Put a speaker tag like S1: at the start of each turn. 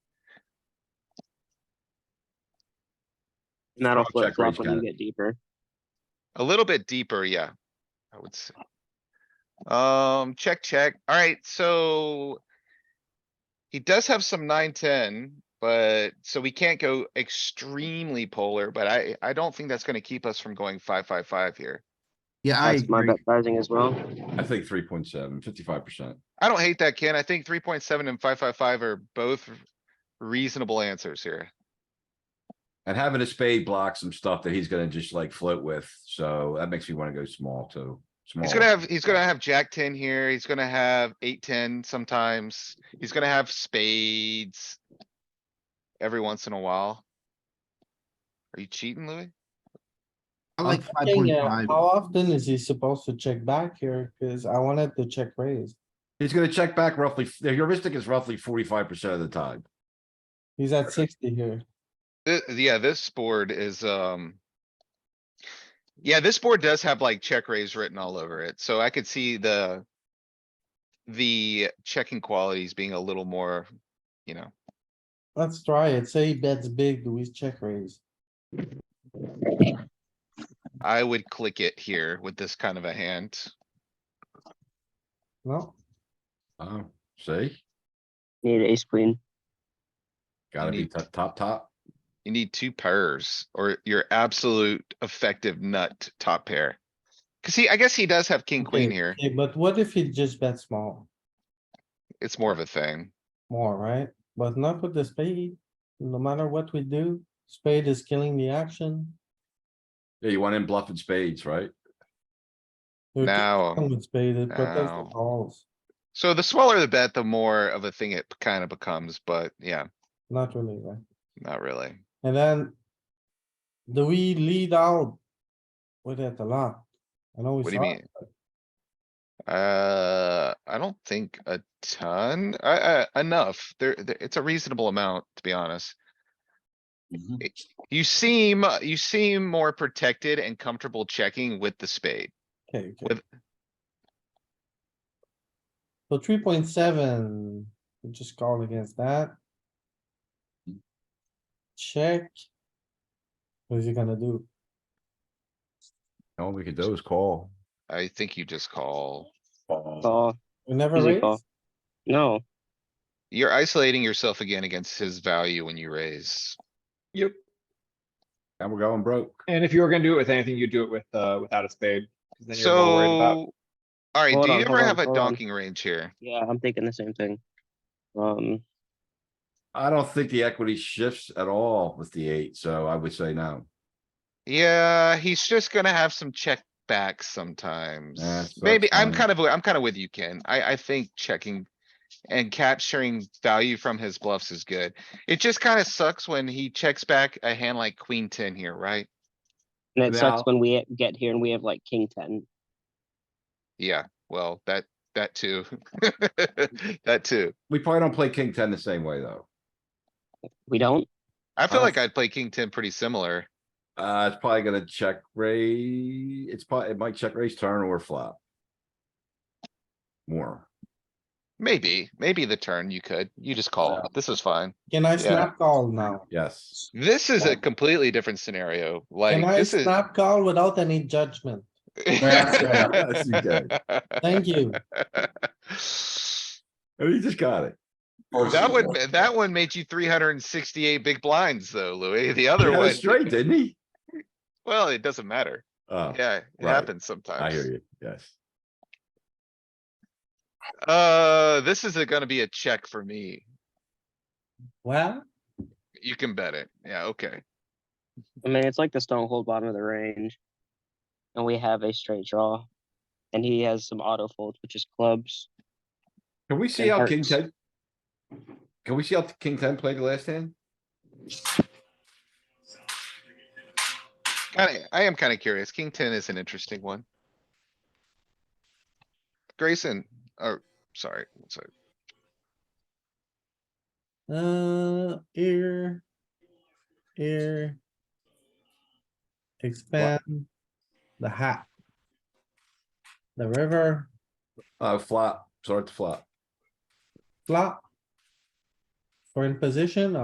S1: And that'll
S2: Check raise
S1: flip flop when
S2: got
S1: you get deeper.
S3: A little bit deeper, yeah. I would say. Um, check, check. Alright, so. He does have some nine, ten, but so we can't go extremely polar, but I, I don't think that's gonna keep us from going five, five, five here.
S4: Yeah, I
S1: That's my
S4: agree.
S1: bet sizing as well.
S2: I think 3.7, 55 percent.
S3: I don't hate that, Ken. I think three point seven and five, five, five are both reasonable answers here.
S2: And having a spade blocks some stuff that he's gonna just like float with, so that makes me wanna go small too.
S3: He's gonna
S2: Small.
S3: have, he's gonna have jack ten here. He's gonna have eight, ten sometimes. He's gonna have spades. Every once in a while. Are you cheating, Louis?
S4: I
S5: I'm
S4: like five point
S5: thinking, uh,
S4: five.
S5: How often is he supposed to check back here? Cause I wanted to check raise.
S2: He's gonna check back roughly, the heuristic is roughly forty-five percent of the time.
S5: He's at sixty here.
S3: Th- yeah, this board is, um. Yeah, this board does have like check raise written all over it, so I could see the. The checking qualities being a little more, you know,
S5: Let's try it. Say he bets big, do we check raise?
S3: I would click it here with this kind of a hand.
S5: No,
S2: Oh, see,
S1: Need ace queen.
S2: gotta be
S3: Indeed.
S2: top, top, top.
S3: You need two pairs or your absolute effective nut top pair. Cause he, I guess he does have king, queen
S5: Okay,
S3: here.
S5: okay, But what if he just bets small
S3: It's more of a thing.
S5: more, right? But not with the spade. No matter what we do, spade is killing the action.
S2: Yeah, you want him bluffing spades, right?
S5: You're just
S3: Now,
S5: With spade, it protects the
S3: Ow.
S5: balls,
S3: so the smaller the bet, the more of a thing it kind of becomes, but yeah,
S5: not really, right?
S3: not really.
S5: And then. Do we lead out? With it a lot. I know we
S3: What do you
S5: saw
S3: mean?
S5: it.
S3: Uh, I don't think a ton, uh, uh, enough. There, there- it's a reasonable amount, to be honest. It- You seem, uh, you seem more protected and comfortable checking with the spade.
S5: Okay, okay.
S3: With-
S5: So three point seven, we just call against that. Check. What is he gonna do?
S2: All we could do is call.
S3: I think you just call.
S1: Call,
S5: We never
S1: easy
S5: raise?
S1: call. No,
S3: You're isolating yourself again against his value when you raise.
S6: Yep.
S2: And we're going broke.
S6: And if you were gonna do it with anything, you'd do it with, uh, without a spade. 'cause then you're more worried about-
S3: So. Alright,
S1: Hold
S3: do you
S1: on, hold
S3: ever
S1: on,
S3: have a
S1: hold on.
S3: donking range here?
S1: yeah, I'm thinking the same thing. Um,
S2: I don't think the equity shifts at all with the eight, so I would say no.
S3: Yeah, he's just gonna have some check backs sometimes.
S2: that's
S3: Maybe, I'm
S2: fine.
S3: kind of, I'm kind of with you, Ken. I, I think checking. And capturing value from his bluffs is good. It just kind of sucks when he checks back a hand like queen ten here, right?
S1: and it sucks
S2: Now-
S1: when we get here and we have like king ten.
S3: Yeah, well, that, that too. That too.
S2: We probably don't play king ten the same way, though.
S1: We don't,
S3: I feel
S2: Well,
S3: like I'd play king ten pretty similar.
S2: Uh, it's probably gonna check raise, it's probably, it might check raise turn or flop. More.
S3: Maybe, maybe the turn you could. You just call.
S2: Yeah.
S3: This is fine.
S5: Can I
S3: Yeah.
S5: snap call now?
S2: Yes,
S3: This is a completely different scenario. Like,
S5: Can I
S3: this is.
S5: snap call without any judgment?
S2: Yeah, yes, you did.
S5: Thank you.
S3: That
S2: And he just got it.
S3: one, that one made you three hundred and sixty-eight big blinds though, Louis. The other
S2: He had
S3: one,
S2: it straight, didn't he?
S3: well, it doesn't matter.
S2: Oh,
S3: Yeah, it
S2: right.
S3: happens
S2: I hear
S3: sometimes.
S2: you, yes.
S3: Uh, this is a- gonna be a check for me.
S5: Well,
S3: You can bet it. Yeah, okay.
S1: I mean, it's like the stronghold bottom of the range. And we have a straight draw. And he has some auto folds, which is clubs.
S2: Can we see
S1: It
S2: how king
S1: hurts.
S2: ten? Can we see how king ten played the last hand?
S3: Kinda, I am kinda curious. King ten is an interesting one. Grayson, oh, sorry, sorry.
S5: uh, here. Here. Expand. The hat. The river,
S2: Uh, flop, start to flop.
S5: flop. We're in position,